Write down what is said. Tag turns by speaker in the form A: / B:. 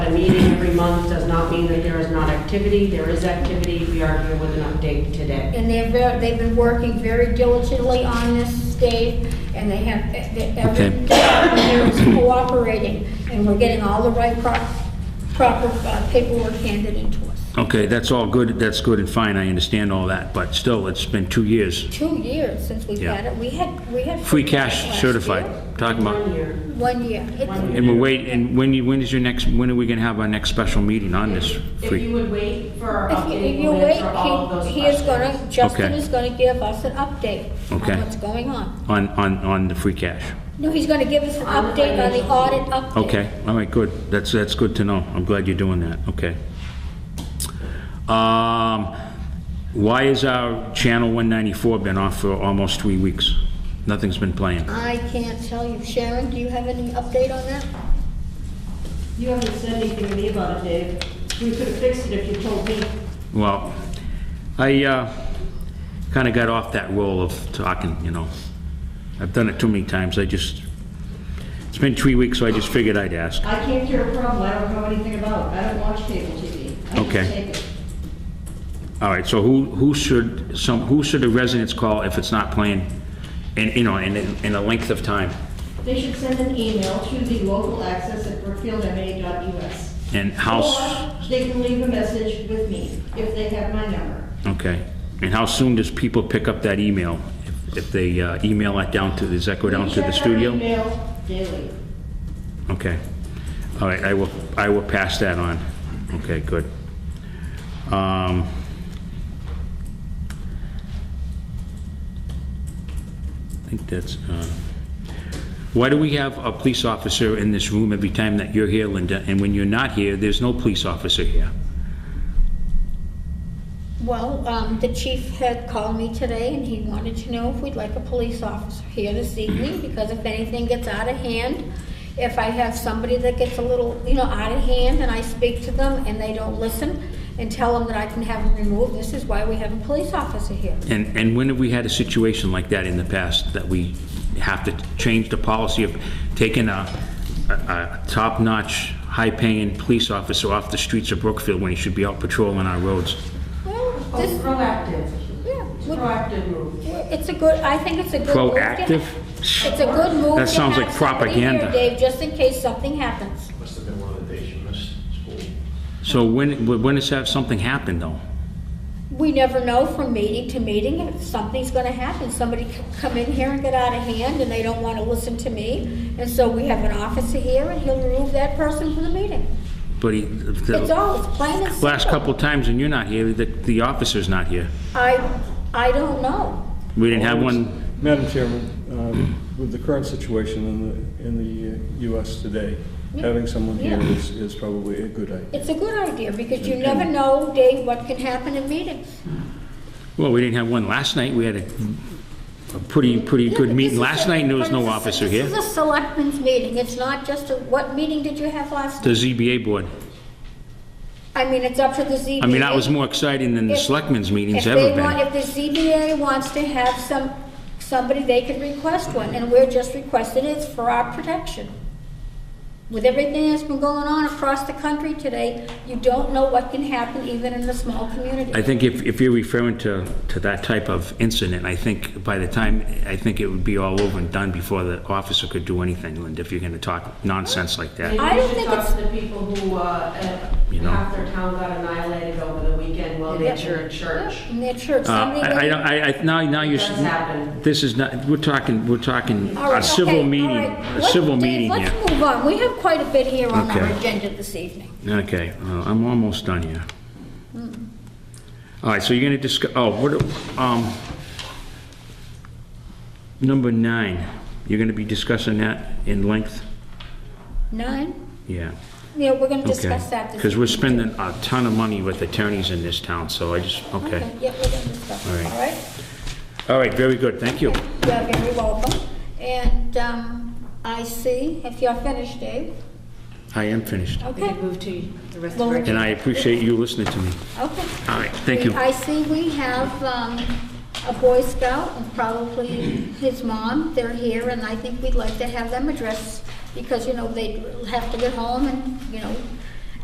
A: every month does not mean that there is not activity. There is activity. We are here with an update today.
B: And they're, ver- they've been working very diligently on this, Dave, and they have, e-, they- every
C: Okay.
B: department here is cooperating, and we're getting all the right pro- proper uh, paperwork handed into us.
C: Okay, that's all good, that's good and fine, I understand all that, but still, it's been two years.
B: Two years since we've had it, we had, we had.
C: Free
B: last
C: cash
B: year.
C: certified, talking
A: One
C: about,
A: year.
B: One year. It's-
A: One
C: and we'll wait, and when, you- when is your next, when are we gonna have our next special meeting on this?
A: If you
C: free?
A: would wait for our
B: If you-
A: update,
B: if you
A: we'll
B: wait,
A: answer all of
B: he-
A: those
B: he is
A: questions.
B: gonna, Justin
C: Okay.
B: is gonna give us an update
C: Okay.
B: on what's going on.
C: On, on, on the free cash?
B: No, he's gonna give us an update on the audit update.
C: Okay, all right, good. That's, that's good to know. I'm glad you're doing that, okay. Um, why is our channel 194 been off for almost three weeks? Nothing's been playing.
B: I can't tell you. Sharon, do you have any update on that?
D: You haven't said anything to me about it, Dave. We could have fixed it if you told me.
C: Well, I, uh, kinda got off that role of talking, you know. I've done it too many times. I just, it's been three weeks, so I just figured I'd ask.
D: I can't cure a problem I don't know anything about. I don't watch cable TV. I just
C: Okay.
D: take it.
C: All right, so who, who should, some, who should the residents call if it's not playing? And, you know, in, in a length of time?
D: They should send an email to the local access at brookfieldma.us.
C: And how,
D: Or they can leave a message with me if they have my number.
C: okay, and how soon does people pick up that email? If- If they uh, email that down to, does that go down
D: We
C: to the
D: check our
C: studio?
D: email daily.
C: Okay, all right, I will, I will pass that on. Okay, good. Um, I think that's, uh, why do we have a police officer in this room every time that you're here, Linda? And when you're not here, there's no police officer here.
B: Well, um, the chief had called me today and he wanted to know if we'd like a police officer here this evening because if anything gets out of hand, if I have somebody that gets a little, you know, out of hand and I speak to them and they don't listen and tell them that I can have them removed, this is why we have a police officer here.
C: And, and when have we had a situation like that in the past, that we have to change the policy of taking a, a- a top-notch, high-paying police officer off the streets of Brookfield when he should be out patrolling our roads?
B: Well,
A: Oh,
B: this,
A: Proactive.
B: yeah,
A: It's a
B: we-
A: Proactive move.
B: it's a good, I think it's a good. move to ha-
C: Proactive?
B: It's a good move. to
C: That sounds
B: have
C: like
B: somebody here,
C: propaganda.
B: Dave, just in case something happens.
E: Must have been one of the days you missed school.
C: So when, when has that something happened, though?
B: We never know from meeting to meeting if something's gonna happen. Somebody c- come in here and get out of hand and they don't wanna listen to me. And so we have an officer here and he'll remove that person from the meeting.
C: But he,
B: It's
C: the
B: all, it's plain and simple.
C: last couple times when you're not here, the, the officer's not here.
B: I, I don't know.
C: We didn't have one,
F: Madam Chairman, um, with the current situation in the, in the uh, US today, having someone here
B: Yeah.
F: is, is probably a good idea.
B: It's a good idea because you never know, Dave, what can happen in meetings.
C: well, we didn't have one last night. We had a, a pretty, pretty
B: Yeah,
C: good
B: but this is
C: meeting last
B: a-
C: night, and there was
B: but
C: no
B: it's a-
C: officer
B: This
C: here.
B: is a selectmen's meeting. It's not just a, what meeting did you have last?
C: The ZBA board.
B: I mean, it's up to the ZBA.
C: I mean, that was more exciting than the
B: If-
C: selectmen's meetings
B: If
C: ever
B: they want,
C: been.
B: if the ZBA wants to have some, somebody, they can request one, and we're just requesting it's for our protection. With everything that's been going on across the country today, you don't know what can happen even in a small
C: I
B: community.
C: think if, if you're referring to, to that type of incident, I think by the time, I think it would be all over and done before the officer could do anything, Linda, if you're gonna talk nonsense like that. Uh,
A: Maybe
B: I don't
A: we should
B: think
A: talk
B: it's-
A: to the people who, uh,
C: You
A: uh,
C: know.
A: half their town got annihilated over the weekend while they were at church.
B: In their church,
C: Uh,
B: somebody.
C: I, I, don't- I, I- now, now you're,
A: It does happen.
C: this is not, we're talking, we're talking
B: All right,
C: a civil
B: okay, all
C: meeting,
B: right.
C: a
B: Let's-
C: civil
B: Dave,
C: meeting here.
B: Let's move on. We have quite a bit here on our
C: Okay.
B: agenda this evening.
C: Okay, uh, I'm almost done here. All right, so you're gonna discuss, oh, what, um, number nine, you're gonna be discussing that in length?
B: Nine?
C: Yeah.
B: Yeah, we're gonna discuss that this evening.
C: Because we're
B: too.
C: spending a ton of money with attorneys in this town, so I just, okay.
B: Yeah, we're gonna discuss,
C: All
B: it,
C: right.
B: all right?
C: All right, very good, thank you.
B: You're very welcome. And um, I see, if you're finished, Dave,
C: I am finished,
B: okay.
G: move to the rest
B: Well,
C: and I appreciate you listening to me.
B: Okay.
C: All right, thank you.
B: I see we have um, a Boy Scout and probably his mom. They're here, and I think we'd like to have them address because, you know, they have to get home and, you know,